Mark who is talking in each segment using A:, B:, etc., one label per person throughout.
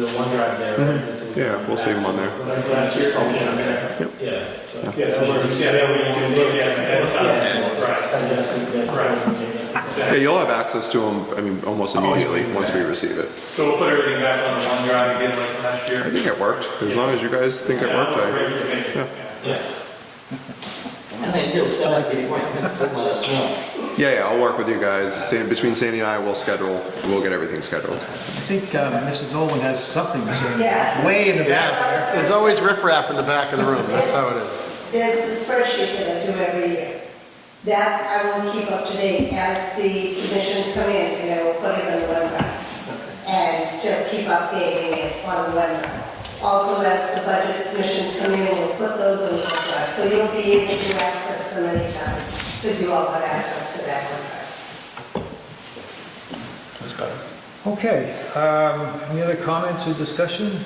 A: The OneDrive there. right?
B: Yeah, we'll save them on there.
A: That's what I'm just calling it.
B: Yep.
A: Yeah. so-
C: Yeah, so you- yeah, that way you can look at it, advertise it, right.
A: Suggested that-
B: Yeah, you'll have access to them, I mean, almost immediately, once we receive it.
C: So we'll put everything back on the OneDrive again like last year.
B: I think it worked, as long as you guys think it worked, I,
A: Yeah.
D: And then you'll sell it to anyone, so let us know.
B: yeah, yeah, I'll work with you guys, San- between Sandy and I, we'll schedule, we'll get everything scheduled.
E: I think um, Mrs. Nolan has something to say.
F: Yeah.
E: Way in the back.
G: Yeah, there's always riffraff in the back of the room, that's how it is.
F: There's the spreadsheet that I do every year. That I will keep up to date as the submissions come in, and I will put it on the website. And just keep updating it on the website. Also, as the budget submissions come in, we'll put those on the website. So you'll be able to access them anytime, because you all have access to that website.
E: Okay, um, any other comments or discussion?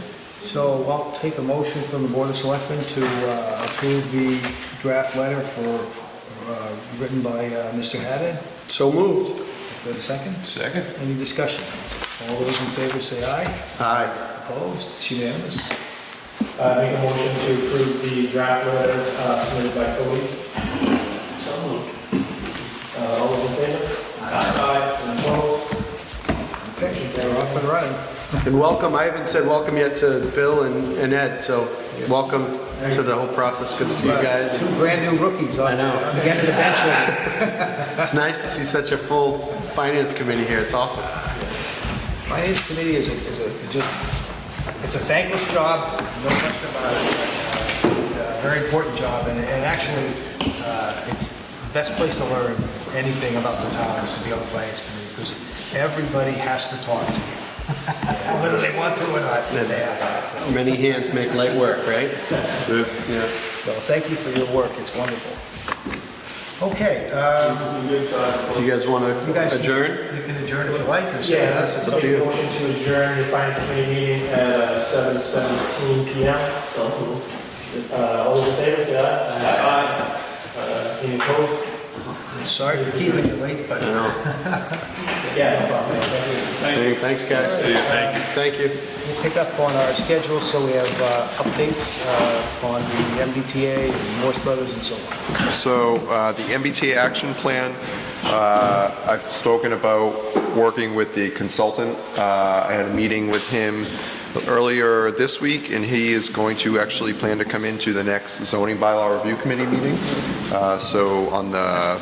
E: So I'll take a motion from the Board of Selectmen to uh, approve the draft letter for, uh, written by uh, Mr. Haddad.
G: So moved.
E: Wait a second.
G: Second.
E: Any discussion? All those in favor say aye.
G: Aye.
E: Opposed? It's unanimous.
A: Uh, make a motion to approve the draft letter uh, submitted by Cody. So moved. Uh, all those in favor? Aye. And opposed?
E: Okay, they're off and running.
G: And welcome, I haven't said welcome yet to Bill and and Ed, so welcome to the whole process, good to see you guys.
E: Two brand-new rookies on on the end of the bench. here.
G: It's nice to see such a full finance committee here, it's awesome.
E: Finance Committee is, a- is a, is just, it's a thankless job, no question about it. Uh, It's a very important job, and, and actually, uh, it's the best place to learn anything about the town is to be on the Finance Committee, because everybody has to talk to you. Whether they want to or not, they have to.
G: Many hands make light work, right? Yeah.
E: So thank you for your work, it's wonderful. Okay, um,
G: Do you guys want
E: you guys.
G: to
E: can-
G: adjourn?
E: You can adjourn if you like, or something
A: Yeah,
E: else.
A: that's
E: It's
A: a
E: up to you.
A: motion to adjourn the finance committee meeting at uh, seven seventeen P M. So moved. Uh, all those in favor, say aye. Aye. Uh, any opposed?
E: Sorry for keeping you late, but.
A: Yeah, no problem. Thank you.
G: Thanks. Thanks, guys. Thank you.
E: We'll pick up on our schedule, so we have uh, updates uh, on the MBTA, and Morse Brothers, and so on.
B: So uh, the MBTA action plan, uh, I've spoken about working with the consultant. Uh, I had a meeting with him earlier this week, and he is going to actually plan to come into the next zoning bylaw review committee meeting. Uh, So on the...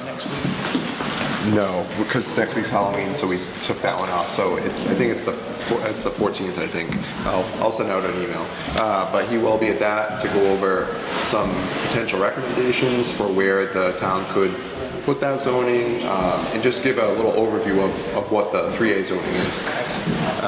B: No, because next week's Halloween, so we took that one off. So it's, I think it's the, four- it's the 14th, I think. I'll, I'll send out an email. Uh, But he will be at that to go over some potential recommendations for where the town could put that zoning, um, and just give a little overview of, of what the 3A zoning is.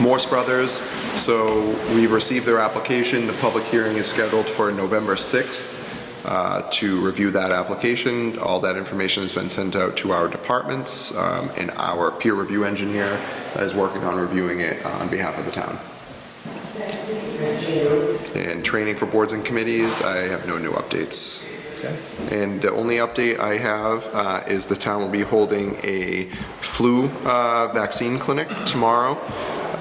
B: Morse Brothers. So we received their application. The public hearing is scheduled for November 6th uh, to review that application. All that information has been sent out to our departments um, and our peer review engineer is working on reviewing it uh, on behalf of the town. And training for boards and committees, I have no new updates. And the only update I have uh, is the town will be holding a flu uh, vaccine clinic tomorrow.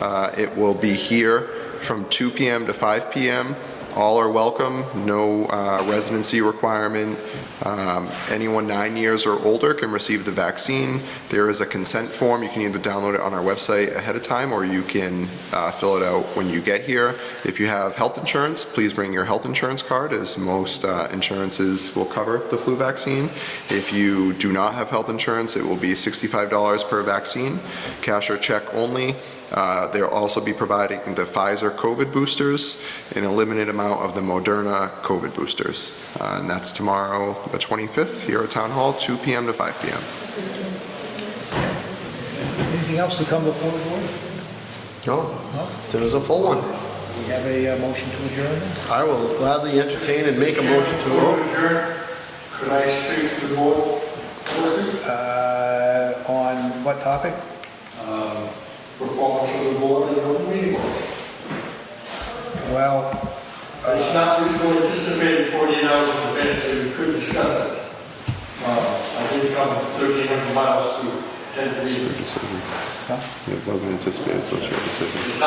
B: Uh, It will be here from 2 PM to 5 PM. All are welcome, no uh, residency requirement. Um, Anyone nine years or older can receive the vaccine. There is a consent form, you can either download it on our website ahead of time, or you can uh, fill it out when you get here. If you have health insurance, please bring your health insurance card, as most uh, insurances will cover the flu vaccine. If you do not have health insurance, it will be $65 per vaccine, cash or check only. Uh, They'll also be providing the Pfizer COVID boosters and a limited amount of the Moderna COVID boosters. Uh, And that's tomorrow, the 25th, here at Town Hall, 2 PM to 5 PM.
E: Anything else to come before the board?
G: No, there was a full one.
E: We have a uh, motion to adjourn.
G: I will gladly entertain and make a motion to.
C: Could I speak to the board?
E: Uh, On what topic?
C: Um, Performance of the board and the open meeting law.
E: Well,
C: It's not usually anticipated 48 hours in advance, so you could discuss it. Uh, I did come 1,300 miles to attend the meeting.
B: It wasn't anticipated, so it's your decision.